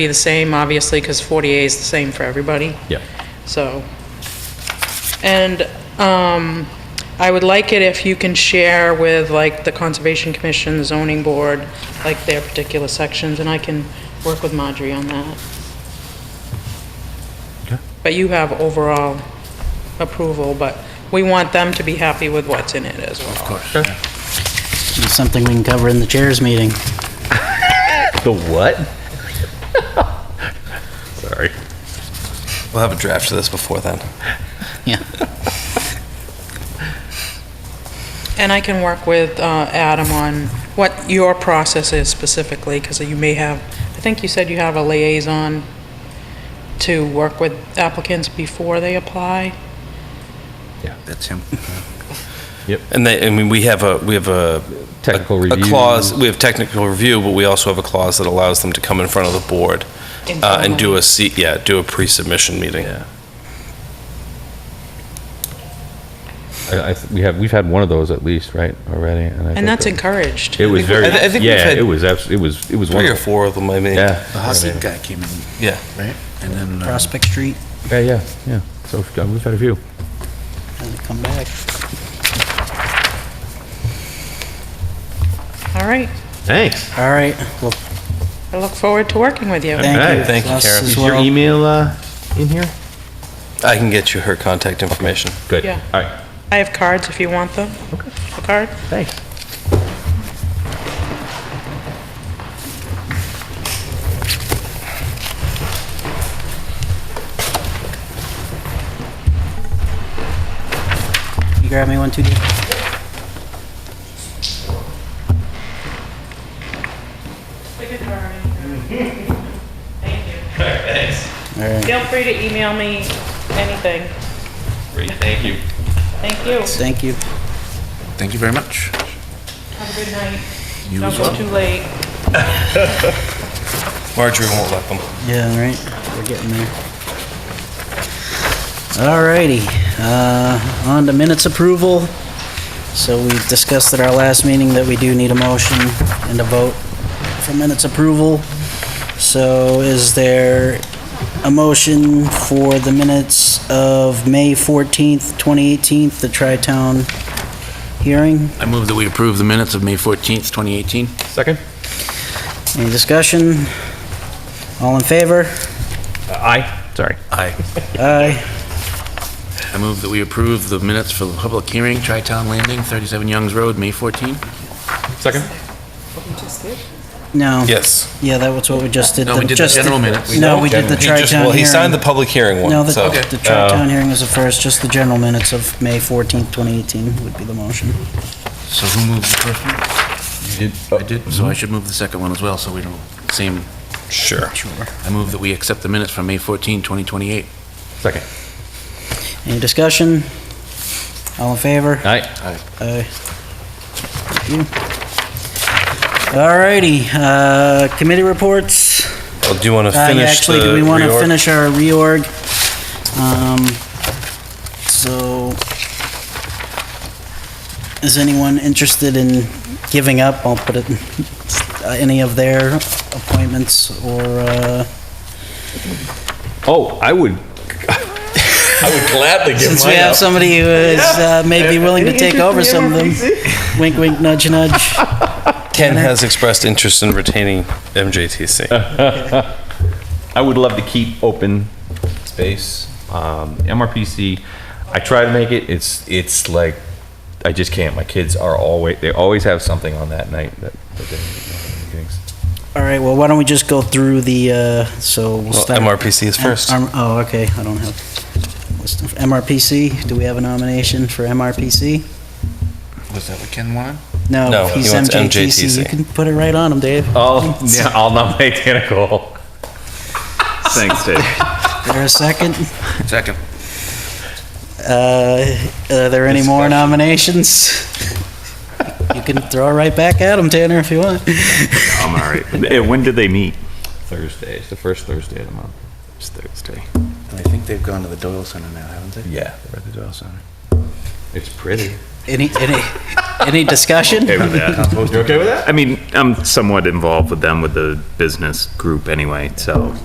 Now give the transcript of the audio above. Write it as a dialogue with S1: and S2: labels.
S1: be the same, obviously, because 40A is the same for everybody,
S2: Yeah.
S1: so. And um, I would like it if you can share with, like, the Conservation Commission, the zoning board, like, their particular sections, and I can work with Marjorie on that.
S2: Okay.
S1: But you have overall approval, but we want them to be happy with what's in it as well. Of course.
S3: It's something we can cover in the chairs meeting.
S2: The what? Sorry.
S4: We'll have a draft of this before then.
S3: Yeah.
S1: And I can work with uh, Adam on what your process is specifically, because you may have, I think you said you have a liaison to work with applicants before they apply?
S4: That's him.
S2: Yep.
S4: And they, I mean, we have a, we have a.
S2: Technical
S4: a-
S2: review.
S4: A clause, we have technical review, but we also have a clause that allows them to come in front of the board uh, and do a, se- yeah, do a pre-submission meeting.
S2: Yeah. I, I, th- we have, we've had one of those at least, right, already? I think
S1: And that's
S2: that-
S1: encouraged.
S2: It was very,
S4: I thi- I think we've
S2: yeah,
S4: had
S2: it was, abs- it was, it was
S4: Three or
S2: wonderful.
S4: four of them, I mean.
S2: Yeah.
S5: The Hasid guy came in,
S4: Yeah.
S5: right? And then, uh,
S3: Prospect Street,
S2: Yeah, yeah, yeah. So we've got- we've had a few.
S3: and come back.
S1: All right.
S2: Thanks.
S3: All right, well,
S1: I look forward to working with you.
S2: right,
S3: thank you.
S4: thank you,
S3: Us
S4: Karen.
S3: as
S2: Is your
S3: well.
S2: email, uh, in here?
S4: I can get you her contact information.
S2: Good.
S1: Yeah.
S2: All right.
S1: I have cards if you want them. Okay. A card?
S2: Thanks.
S3: You grab me one too, Dave? All right,
S1: Feel free to email me anything.
S2: Great, thank you.
S1: Thank you.
S3: thank you.
S5: thank you very much.
S1: Have a good night.
S5: You
S1: Don't
S5: as
S1: go
S5: well.
S1: too late.
S4: Marjorie won't let them.
S3: Yeah, all right, we're getting there. All righty, uh, on to minutes approval. So we discussed at our last meeting that we do need a motion and a vote for minutes approval. So is there a motion for the minutes of May 14th, 2018, the Tri-Town hearing?
S5: I move that we approve the minutes of May 14th, 2018.
S2: Second?
S3: Any discussion? All in favor?
S2: Aye. Sorry.
S5: Aye.
S3: Aye.
S5: I move that we approve the minutes for the public hearing, Tri-Town Landing, 37 Youngs Road, May 14.
S2: Second?
S3: No.
S4: Yes.
S3: Yeah, that was what we just did.
S5: No, we did the
S3: just
S5: general minutes.
S3: No, we did the
S4: He just-
S3: tri-town
S4: Well, he signed the
S3: hearing.
S4: public hearing
S3: No,
S4: one,
S3: the
S4: so. Oh.
S3: the tri-town hearing was the first, just the general minutes of May 14th, 2018 would be the motion.
S5: So who moved the first one? I did, so I should move the second one as well, so we don't, same.
S4: Sure.
S5: I move that we accept the minutes from May 14, 2028.
S2: Second.
S3: Any discussion? All in favor?
S2: Aye.
S3: Aye. Thank you. Alrighty, uh, committee reports.
S4: Well, Oh, Do you want to
S3: Uh, yeah,
S4: finish
S3: Actually,
S4: the
S3: do we want to
S4: reorg?
S3: finish our reorg? Um, So, is anyone interested in giving up, I'll put it, uh, any of their appointments or, uh,
S2: Oh, I would. I would gladly give
S3: since we have somebody who is uh, maybe willing to take over some of them? Wink, wink, nudge, nudge.
S4: Ken has expressed interest in retaining MJTC.
S2: I would love to keep open space. Um, MRPC, I try to make it. It's it's like I just can't. My kids are always they always have something on that night that, that they meetings.
S3: All right, well, why don't we just go through the, uh, so we'll
S4: Well,
S3: start.
S4: MRPC is first.
S3: Um, Oh, okay, I don't have, list of- MRPC, do we have a nomination for MRPC?
S5: Was that what Ken wanted?
S3: No,
S4: No,
S3: he's
S4: he wants
S3: MJTC. You
S4: MJTC.
S3: can put it right on him, Dave.
S2: Oh yeah, I'll nominate Dana Cole. Thanks, Dave.
S3: There a second?
S5: Second.
S3: Uh, Are there any more nominations? You can throw it right back at him, Tanner, if you want.
S2: I'm all right. When do they meet? Thursday. It's the first Thursday of the month. It's Thursday.
S5: I think they've gone to the Doyle Center now, haven't they?
S2: Yeah.
S5: They're at the Doyle Center.
S2: It's pretty.
S3: Any, any, any discussion?
S6: okay with that.
S2: You Oh, okay with that?
S6: I mean, I'm somewhat involved with them with the business group anyway, so.